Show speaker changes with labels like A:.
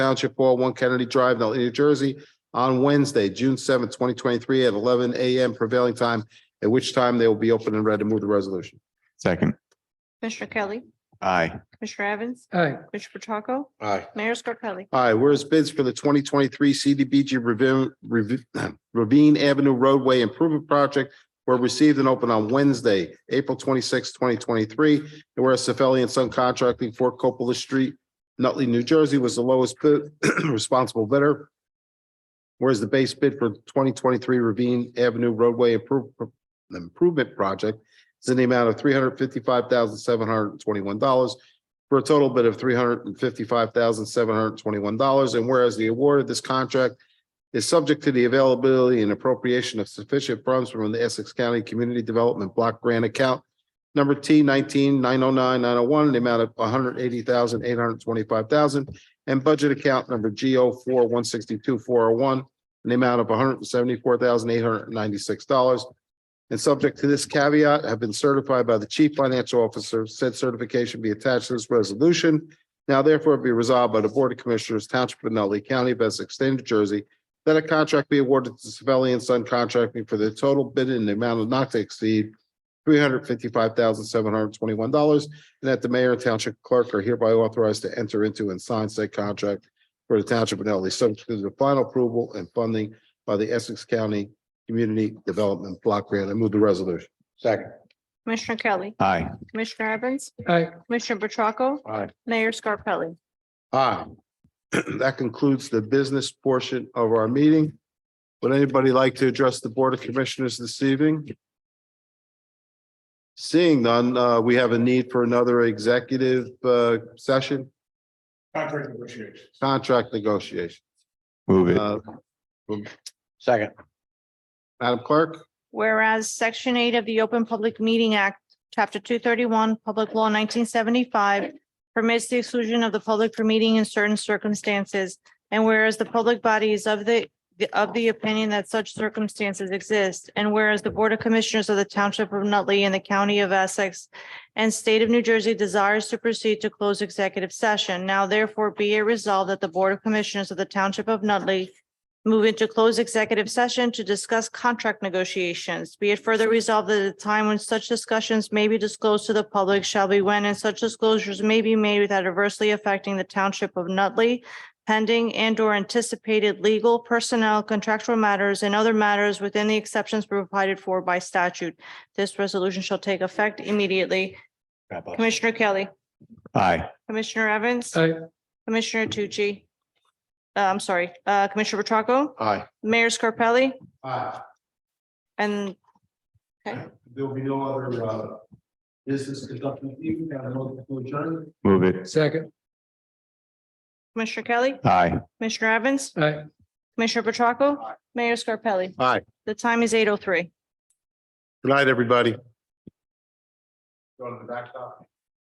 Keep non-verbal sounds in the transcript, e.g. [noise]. A: Township Hall, One Kennedy Drive, Nutley, New Jersey, on Wednesday, June seventh, twenty twenty-three, at eleven AM prevailing time, at which time they will be open and ready to move the resolution.
B: Second.
C: Commissioner Kelly,
B: Aye.
C: Commissioner Evans,
D: aye,
C: Commissioner Petracca,
A: Aye.
C: Mayor Scarpelli,
A: Aye, whereas bids for the twenty twenty-three CDBG Ravine- Ravi- [clears throat] Ravine Avenue roadway improvement project were received and opened on Wednesday, April 26, twenty twenty-three. And whereas Sefeli and Son Contracting for Coppola Street, Nutley, New Jersey was the lowest bid, [clears throat] responsible bidder. Whereas the base bid for twenty twenty-three Ravine Avenue roadway improve- improvement project is in the amount of three hundred fifty-five thousand seven hundred twenty-one dollars for a total bid of three hundred and fifty-five thousand, seven hundred and twenty-one dollars. And whereas the award of this contract is subject to the availability and appropriation of sufficient funds from the Essex County Community Development Block Grant Account number T nineteen nine oh nine nine oh one, in the amount of one hundred eighty thousand, eight hundred twenty-five thousand, and budget account number G O four one sixty-two four oh one, in the amount of one hundred seventy-four thousand, eight hundred ninety-six dollars. And subject to this caveat, have been certified by the chief financial officer. Said certification be attached to this resolution. Now therefore be resolved by the Board of Commissioners, Township of Nutley County of Essex, State of New Jersey, that a contract be awarded to Savelli and Son Contracting for the total bid in the amount of not to exceed three hundred fifty-five thousand, seven hundred twenty-one dollars, and that the mayor and township clerk are hereby authorized to enter into and sign said contract for the Township of Nutley, subject to the final approval and funding by the Essex County Community Development Block Grant. I move the resolution. Second.
C: Commissioner Kelly,
B: Aye.
C: Commissioner Evans,
D: aye.
C: Commissioner Petracca,
A: Aye.
C: Mayor Scarpelli.
A: Aye. [clears throat] That concludes the business portion of our meeting. Would anybody like to address the Board of Commissioners this evening? Seeing none, uh, we have a need for another executive, uh, session,
E: Contract negotiations.
A: contract negotiation.
B: Move it.
A: Uh,
B: Second.
A: Madam Clerk?
C: Whereas Section 8 of the Open Public Meeting Act, Chapter 231, Public Law 1975, permits the exclusion of the public from meeting in certain circumstances. And whereas the public body is of the, of the opinion that such circumstances exist. And whereas the Board of Commissioners of the Township of Nutley and the County of Essex and State of New Jersey desires to proceed to close executive session. Now therefore be it resolved that the Board of Commissioners of the Township of Nutley Move into closed executive session to discuss contract negotiations. Be it further resolved that the time when such discussions may be disclosed to the public shall be when and such disclosures may be made without adversely affecting the township of Nutley pending and or anticipated legal personnel contractual matters and other matters within the exceptions provided for by statute. This resolution shall take effect immediately. Commissioner Kelly,
B: Aye.
C: Commissioner Evans,
D: Aye.
C: Commissioner Tucci. Uh, I'm sorry, uh, Commissioner Petracca,
A: Aye.
C: Mayor Scarpelli.
A: Aye.
C: And
A: There'll be no other, uh, business conducted, even down multiple adjournment.
B: Move it.
D: Second,
C: Commissioner Kelly,
B: Aye.
C: Commissioner Evans,
D: aye.
C: Commissioner Petracca, Mayor Scarpelli.
A: Aye.
C: The time is eight oh three.
A: Good night, everybody.
E: Go to the backstop.